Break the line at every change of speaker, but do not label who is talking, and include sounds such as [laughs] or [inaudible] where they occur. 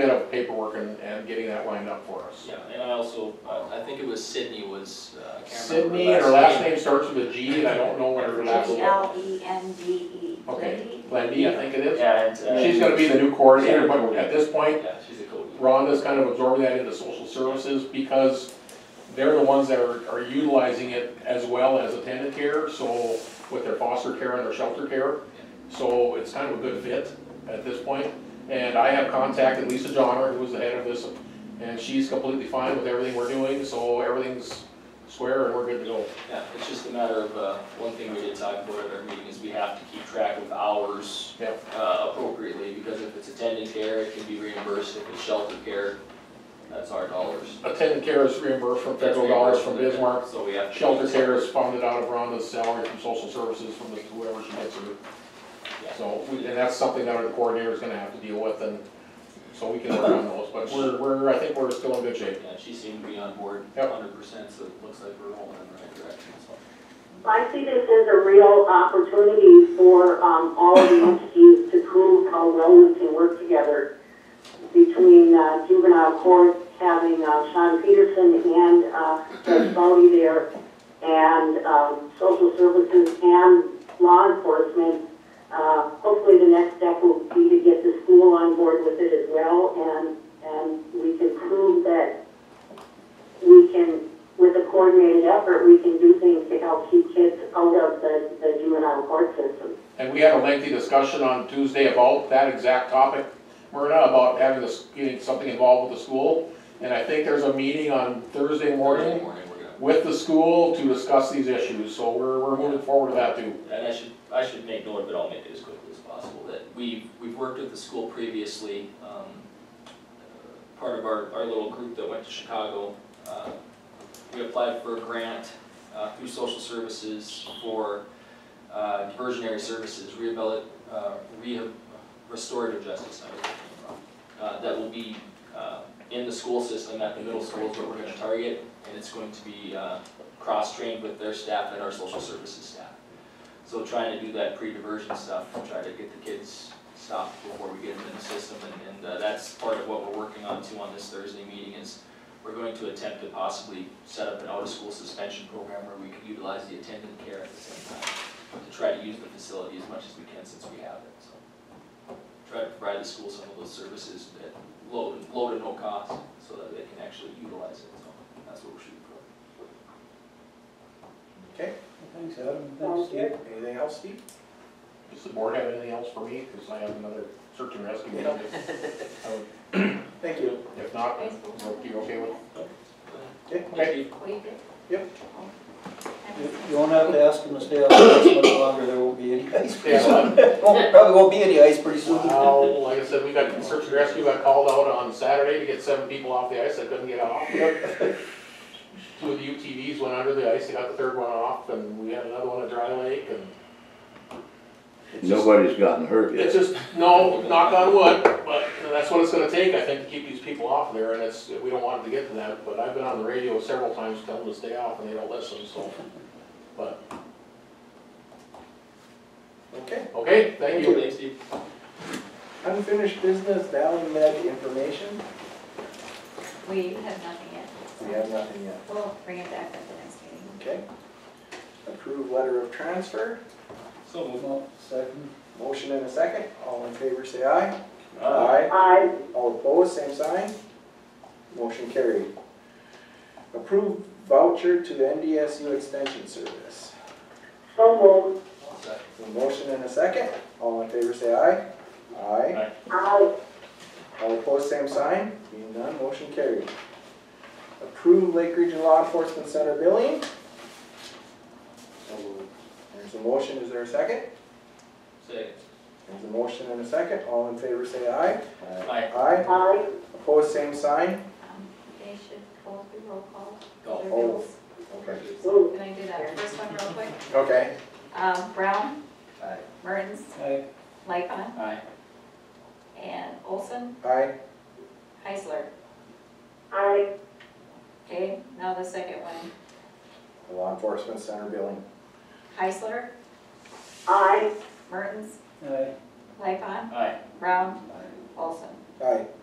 bit of paperwork and, and getting that lined up for us.
Yeah, and I also, I- I think it was Sydney was, uh, I can't remember.
Sydney, her last name starts with a G, and I don't know what her last
G
name.
L E N D E.
Okay, Glendy, I think it is.
Yeah, and, uh,
She's gonna be the new coordinator, but at this point,
Yeah, she's a Cody.
Rhonda's kind of absorbing that into social services because they're the ones that are, are utilizing it as well as attendant care, so with their foster care and their shelter care. So it's kind of a good fit at this point. And I have contacted Lisa Johnner, who was the head of this, and she's completely fine with everything we're doing, so everything's square and we're good to go.
Yeah, it's just a matter of, uh, one thing we did talk about at our meeting is we have to keep track of hours
Yep.
uh, appropriately, because if it's attendant care, it can be reimbursed, if it's shelter care, that's our dollars.
Attendant care is reimbursed from
That's
federal dollars from
reimbursed,
Bismarck.
So we have. to-
Shelter care is funded out of Rhonda's salary from social services from the- whoever she gets her.
Yeah.
So, we- and that's something that our coordinator is gonna have to deal with and, so we can work on those, but we're, we're, I think we're still in good shape.
Yeah, she seemed to be on board
Yep.
hundred percent, so it looks like we're rolling in the right direction, so.
I see this as a real opportunity for um, all of the entities to prove how well we can work together between uh, juvenile court, having uh, Sean Peterson and uh, Judge Bodie there, and um, social services and law enforcement. Uh, Hopefully, the next step will be to get the school on board with it as well, and, and we can prove that we can with a coordinated effort, we can do things to help keep kids out of the, the juvenile court system.
And we had a lengthy discussion on Tuesday about that exact topic, Myrna, about having this, getting something involved with the school. And I think there's a meeting on Thursday
Thursday
morning
Morning, we're gonna.
with the school to discuss these issues, so we're, we're moving forward with that too.
And I should, I should make note of it, I'll make it as quickly as possible, that we've, we've worked with the school previously. um, uh, Part of our, our little group that went to Chicago, uh, we applied for a grant uh, through social services for uh, diversionary services, rehabil, uh, rehab, restorative justice, I was thinking wrong. uh, That will be uh, in the school system, at the middle schools that we're gonna target, and it's going to be uh, cross-trained with their staff and our social services staff. So trying to do that pre-diversion stuff, to try to get the kids stopped before we get them in the system, and, and uh, that's part of what we're working on too on this Thursday meeting is we're going to attempt to possibly set up an out-of-school suspension program where we could utilize the attendant care at the same time, to try to use the facility as much as we can since we have it, so. Try to provide the school some of those services at low, low to no cost, so that they can actually utilize it, so that's what we're shooting for.
Okay, thanks Adam, thanks Steve. Anything else, Steve?
Does the board have anything else for me? Because I have another search and rescue. meeting. I [laughs] would-
Thank you.
If not, are you okay with?
Okay.
Okay.
Yep. You- You won't have to ask him to stay out much longer, there won't [laughs] be any ice pretty
Yeah,
soon.
well,
Won't- Probably won't be any ice pretty soon.
well, like I said, we got, search and rescue got called out on Saturday to get seven people off the ice that couldn't get off. [laughs] Two of the UTVs went under the ice, they got the third one off, and we had another one at Dry Lake, and it's just-
Nobody's gotten hurt
It's
yet.
just, no, knock on wood, but that's what it's gonna take, I think, to keep these people off there, and it's, we don't want it to get to that, but I've been on the radio several times telling them to stay off, and they don't listen, so. But,
Okay.
okay, thank you.
Thanks, Steve.
Unfinished business, Valley Med information,
We have nothing yet.
we have nothing yet.
We'll bring it back at the next meeting.
Okay. Approved letter of transfer,
So moved.
second, motion and a second, all in favor say aye.
I
All opposed, same sign. Motion carried. Approved voucher to the NDSU Extension Service.
so moved,
A motion and a second, all in favor say aye. Aye.
I,
All opposed, same sign, being none, motion carried. Approve Lake Region Law Enforcement Center billing. So moved. There's a motion, is there a second?
Second.
There's a motion and a second, all in favor say aye.
Aye.
Aye,
I,
opposed, same sign.
Um, They should oh, pull the roll call.
Go.
their bills.
Okay.
moved,
Can I do that first one real quick?
Okay.
Um, Brown,
Aye.
Mertens,
Aye.
Lightfun,
Aye.
and Olson,
Aye,
Heisler.
I,
Okay, now the second one,
The Law Enforcement Center billing.
Heisler,
I,
Mertens,
Aye.
Lightfun,
Aye.
Brown, Olson.
Aye,